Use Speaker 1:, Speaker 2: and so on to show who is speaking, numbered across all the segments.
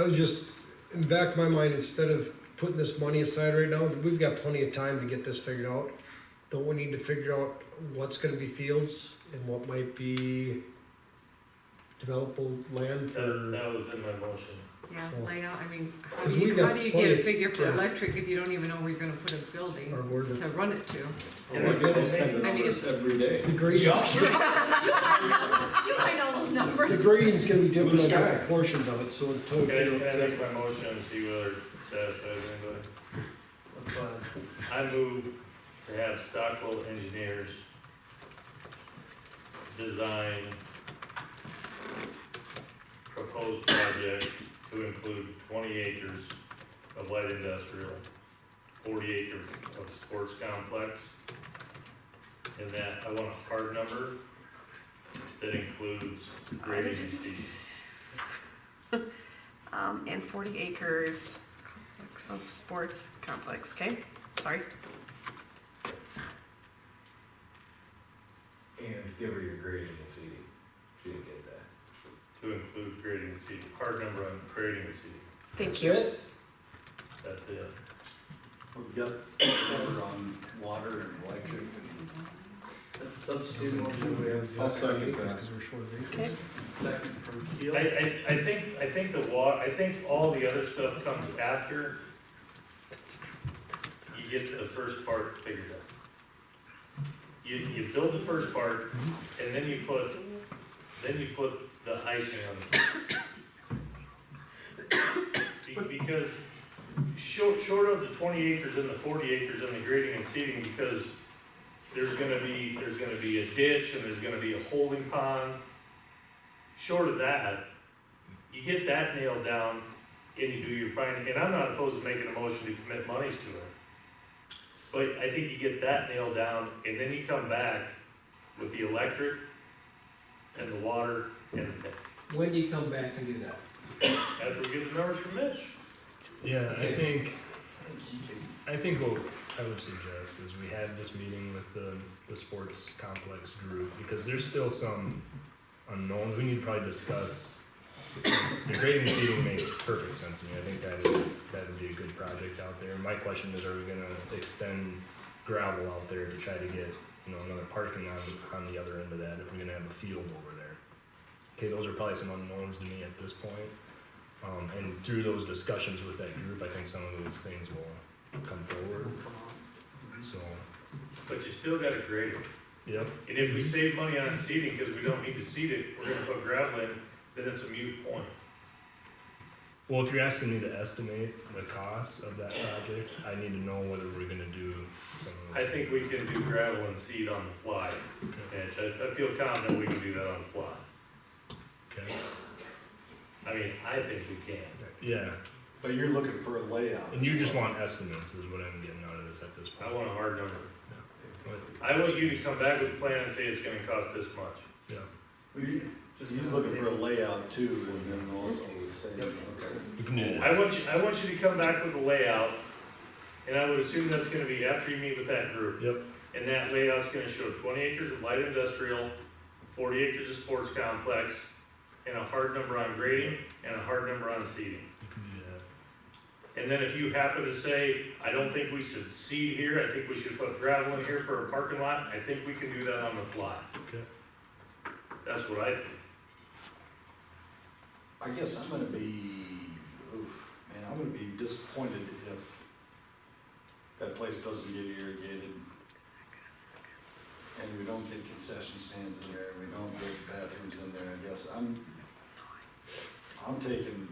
Speaker 1: I was just, in the back of my mind, instead of putting this money aside right now, we've got plenty of time to get this figured out. Don't we need to figure out what's gonna be fields and what might be developable land
Speaker 2: That,
Speaker 1: for?
Speaker 2: that was in my motion.
Speaker 3: Yeah,
Speaker 1: So-
Speaker 3: layout, I mean, how
Speaker 1: Because
Speaker 3: do
Speaker 1: we
Speaker 3: you,
Speaker 1: got
Speaker 3: how do you
Speaker 1: plenty-
Speaker 3: get a figure for
Speaker 1: yeah.
Speaker 3: electric if you don't even know where you're gonna put a building
Speaker 1: Or where the,
Speaker 3: to run it to?
Speaker 1: And we're good.
Speaker 4: those kinds of
Speaker 3: I mean,
Speaker 4: numbers every day.
Speaker 1: the grading,
Speaker 3: You might know those
Speaker 1: the
Speaker 3: numbers.
Speaker 1: grading's gonna be different
Speaker 4: Blue
Speaker 1: on
Speaker 4: sky.
Speaker 1: different portions of it, so until we
Speaker 2: Okay,
Speaker 1: figure out
Speaker 2: I make
Speaker 1: exactly.
Speaker 2: my motion and see whether it satisfies anybody. I move to have Stockwell Engineers design proposed project to include twenty acres of light industrial, forty acres of sports complex. And that, I want a hard number that includes grading and seeding.
Speaker 5: Um, and forty acres of sports complex, okay? Sorry.
Speaker 6: And give her your grading and see, she didn't get that.
Speaker 2: To include grading and seeding, hard number on grading and seeding,
Speaker 5: Thank
Speaker 1: That's
Speaker 5: you.
Speaker 1: it?
Speaker 2: that's it.
Speaker 4: We've got covered on water and electric.
Speaker 7: That's a substitute motion, we have a
Speaker 4: I'll
Speaker 7: second,
Speaker 4: second that.
Speaker 1: Because we're short of acres.
Speaker 5: Okay.
Speaker 7: second from Keel.
Speaker 2: I, I, I think, I think the wa, I think all the other stuff comes after you get the first part figured out. You, you build the first part, and then you put, then you put the icing on it. Be- Because short, short of the twenty acres and the forty acres and the grading and seeding, because there's gonna be, there's gonna be a ditch, and there's gonna be a holding pond. Short of that, you get that nailed down and you do your finding, and I'm not opposed to making a motion to commit monies to it. But I think you get that nailed down and then you come back with the electric and the water and the tank.
Speaker 8: When do you come back and do that?
Speaker 2: After we get the numbers from Mitch.
Speaker 9: Yeah, I think, I think what I would suggest is we have this meeting with the, the sports complex group, because there's still some unknowns, we need to probably discuss. The grading and seeding makes perfect sense to me, I think that, would- that would be a good project out there, my question is, are we gonna extend gravel out there to try to get, you know, another parking on, on the other end of that, if we're gonna have a field over there? Okay, those are probably some unknowns to me at this point. Um, and through those discussions with that group, I think some of those things will come forward. So,
Speaker 2: But you still gotta grade it.
Speaker 9: yep,
Speaker 2: And if we save money on seeding, cause we don't need to seed it, we're gonna put gravel in, then it's a moot point.
Speaker 9: well, if you're asking me to estimate the cost of that project, I need to know whether we're gonna do some of
Speaker 2: I
Speaker 9: those.
Speaker 2: think we can do gravel and seed on the fly, Mitch. I, I feel confident we can do that on the fly.
Speaker 9: Okay,
Speaker 2: I mean, I think we can.
Speaker 9: yeah,
Speaker 4: But you're looking for a layout.
Speaker 9: and you just want estimates is what I'm getting out of this at this
Speaker 2: I
Speaker 9: point.
Speaker 2: want a hard number. I want you to come back with a plan and say it's gonna cost this much.
Speaker 9: Yeah,
Speaker 4: He's looking for a layout too, and then also we say,
Speaker 7: Yep.
Speaker 4: okay.
Speaker 9: we can do that.
Speaker 2: Oh, I want you, I want you to come back with a layout, and I would assume that's gonna be after you meet with that group.
Speaker 9: Yep.
Speaker 2: And that layout's gonna show twenty acres of light industrial, forty acres of sports complex, and a hard number on grading, and a hard number on seeding.
Speaker 9: You can do that.
Speaker 2: And then if you happen to say, I don't think we should seed here, I think we should put gravel in here for a parking lot, I think we can do that on the fly.
Speaker 9: Okay.
Speaker 2: That's what I, think.
Speaker 4: I guess I'm gonna be, oof, man, I'm gonna be disappointed if that place doesn't get irrigated. And we don't get concession stands in there, we don't get bathrooms in there, I guess I'm, I'm taking,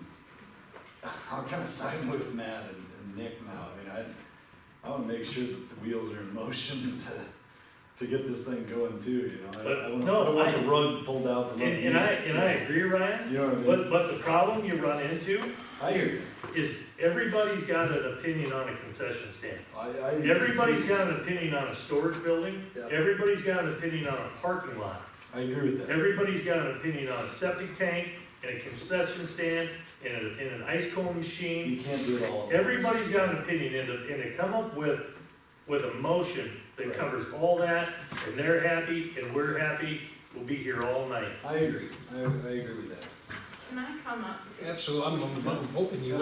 Speaker 4: I'm kinda siding with Matt and and Nick now, I mean, I, I wanna make sure that the wheels are in motion to, to get this thing going too, you know? I- I
Speaker 2: But,
Speaker 4: don't-
Speaker 2: no,
Speaker 4: I don't want the rug pulled out from
Speaker 2: and,
Speaker 4: under me.
Speaker 2: and I, and I agree, Ryan,
Speaker 4: You know what I mean?
Speaker 2: but, but the problem you run into
Speaker 4: I hear you.
Speaker 2: is everybody's got an opinion on a concession stand.
Speaker 4: I, I.
Speaker 2: Everybody's got an opinion on a storage building,
Speaker 4: Yeah.
Speaker 2: everybody's got an opinion on a parking lot,
Speaker 4: I agree with that.
Speaker 2: everybody's got an opinion on a septic tank, and a concession stand, and a- and an ice cone machine.
Speaker 4: You can't do it all. at once.
Speaker 2: Everybody's got an opinion, and to, and to come up with, with a motion that
Speaker 4: Right.
Speaker 2: covers all that, and they're happy, and we're happy, we'll be here all night.
Speaker 4: I agree. I, I agree with that.
Speaker 10: Can I come up to
Speaker 1: Absolutely, I'm, I'm hoping you